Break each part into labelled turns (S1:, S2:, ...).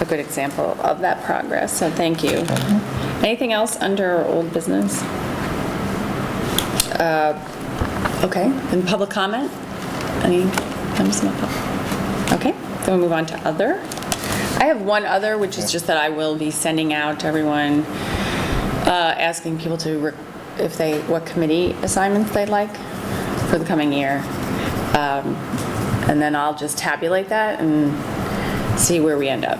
S1: a good example of that progress, so thank you. Anything else under old business? Uh, Okay, and public comment? Any comes from the pub- Okay, then we move on to other. I have one other, which is just that I will be sending out to everyone, uh, asking people to, re- if they, what committee assignments they'd like for the coming year. Um, And then I'll just tabulate that and see where we end up.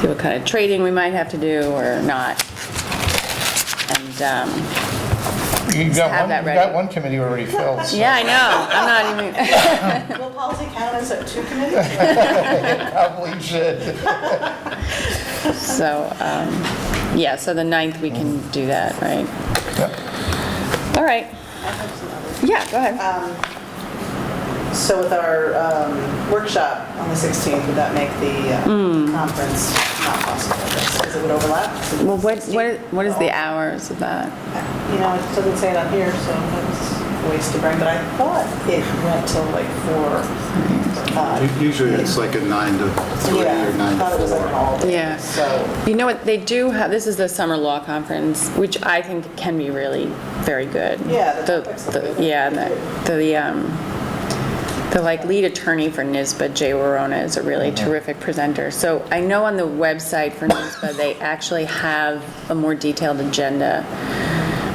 S1: See what kind of trading we might have to do or not. And, um,
S2: You got
S1: have
S2: one,
S1: that
S2: you got
S1: ready.
S2: one committee already filled, so
S1: yeah, I know, I'm not even.
S3: Will policy count as a two committee?
S2: probably should.
S1: So, um, yeah, so the ninth, we can do that, right?
S2: Yep.
S1: All right. Yeah, go ahead.
S3: So with our um, workshop on the 16th, would that make the
S1: Hmm.
S3: uh, conference not possible? Because it would overlap?
S1: Well, what, what what is the hours of that?
S3: You know, it doesn't say it on here, so that's a waste to bring, but I thought it went till like four. uh,
S4: Usually it's like a nine to three
S3: Yeah,
S4: or
S3: I
S4: nine
S3: thought it
S4: to
S3: was like an
S4: four.
S3: all day.
S1: Yeah.
S3: So,
S1: You know what, they do have, this is the summer law conference, which I think can be really very good.
S3: Yeah, the
S1: The,
S3: topics are
S1: the-
S3: good.
S1: yeah, and the, the, um, the like lead attorney for NISBA, Jay Warona, is a really terrific presenter. So I know on the website for NISBA, they actually have a more detailed agenda.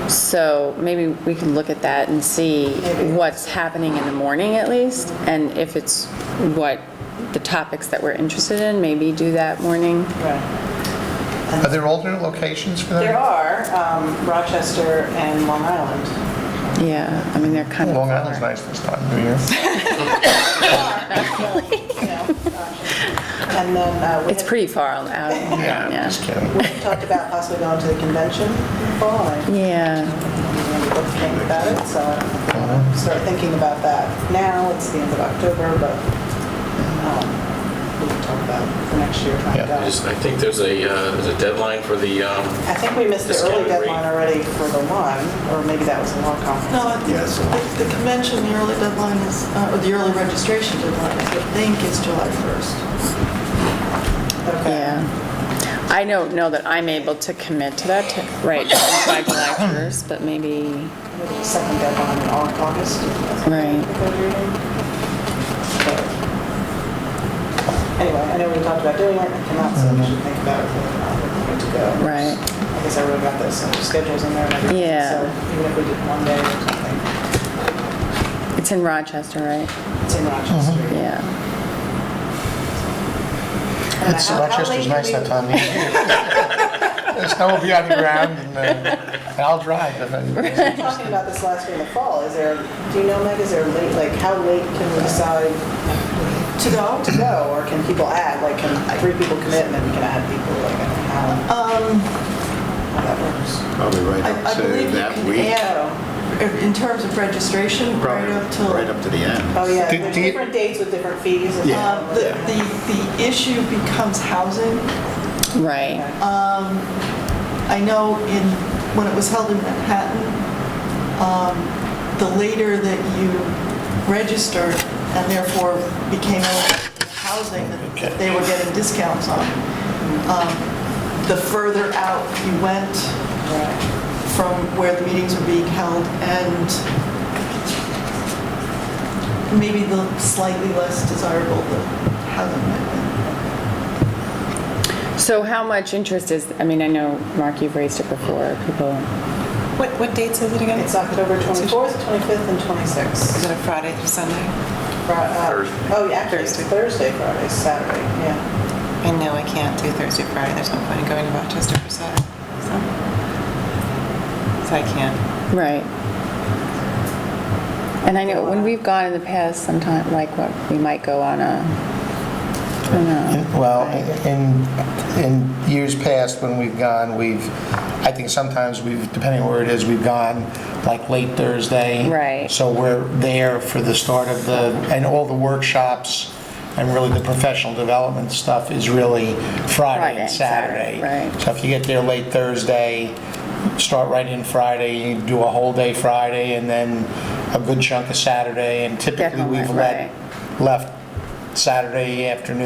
S1: So maybe we can look at that and see what's happening in the morning at least, and if it's what, the topics that we're interested in, maybe do that morning.
S3: right.
S2: Are there older locations for
S3: There
S2: them?
S3: are um, Rochester and Long Island.
S1: Yeah, I mean, they're kind of.
S2: Long Island's nice this time of year.
S3: You know, Rochester. And then uh, we
S1: It's
S3: had
S1: pretty far out. Yeah.
S2: Just kidding.
S3: We talked about possibly going to the convention in the fall. and
S1: Yeah,
S3: we both think about it, so I'll start thinking about that now. It's the end of October, but um, we can talk about it for next year. find
S2: Yeah,
S3: out.
S5: I just- I think there's a, uh, there's a deadline for the, um,
S3: I think we missed the early
S5: Discounted rate.
S3: deadline already for the one, or maybe that was a long conference.
S6: No, I think
S4: Yes.
S6: the- the convention, the early deadline is, uh, or the early registration deadline, is, I think it's July 1st.
S3: Okay.
S1: yeah. I don't know that I'm able to commit to that, t- right, by July 1st, but maybe,
S3: Second deadline in Au- August.
S1: Right.
S3: But Anyway, I know we talked about doing it, I cannot, so we should think about it, we're going to go.
S1: Mm-hmm. right.
S3: I guess I wrote about those uh, schedules in there. and everything,
S1: Yeah.
S3: So even if we did one day or something,
S1: It's in Rochester, right?
S3: it's in
S1: Mm-hmm.
S3: Rochester.
S1: Yeah.
S2: It's,
S3: How- how late
S2: Rochester's
S3: do
S2: nice
S3: we-
S2: that time of year. The snow will be on the ground and uh, and I'll drive. if I-
S3: We were talking about this last year in the fall, is there, do you know, Meg, is there late, like, how late can we decide to go, to go, or can people add, like, can three people commit and then we can add people, like, I don't know how? How that works.
S6: Um,
S4: Probably right
S6: I- I
S4: up to
S6: believe you
S4: that
S6: can
S4: week.
S6: add-
S3: Oh,
S6: In terms of registration, right
S4: Probably
S6: up till...
S4: right up to the end.
S3: oh, yeah,
S2: Did-
S3: there's
S2: do you-
S3: different dates with different fees. and-
S4: Yeah.
S6: Uh, The, the the issue becomes housing.
S1: Right,
S6: I know in, when it was held in Manhattan, um, the later that you registered and therefore became eligible for housing that- that they were getting discounts on, um, the further out you went from where the meetings were being held and maybe the slightly less desirable the housing might be.
S1: so how much interest is, I mean, I know, Mark, you've raised it before, people,
S7: What, what dates is it again?
S3: It's October 24th, 25th, and
S7: Is
S3: 26th.
S7: it a Friday through Sunday?
S3: Fri- uh,
S5: Thursday.
S3: Oh, yeah, actually, it's Thursday, Friday, Saturday, yeah.
S7: I know I can't do Thursday, Friday. There's no point in going to Rochester for Saturday. So, so I can't.
S1: right. And I know, when we've gone in the past, sometime, like, what, we might go on a, I don't know.
S2: Well, in, in years past, when we've gone, we've, I think sometimes we've, depending on where it is, we've gone like late Thursday.
S1: Right.
S2: So we're there for the start of the, and all the workshops and really the professional development stuff is really Friday
S1: Friday,
S2: and Saturday.
S1: Saturday, right.
S2: So if you get there late Thursday, start right in Friday, do a whole day Friday, and then a good chunk of Saturday, and typically
S1: Definitely,
S2: we've
S1: right.
S2: let, left Saturday afternoon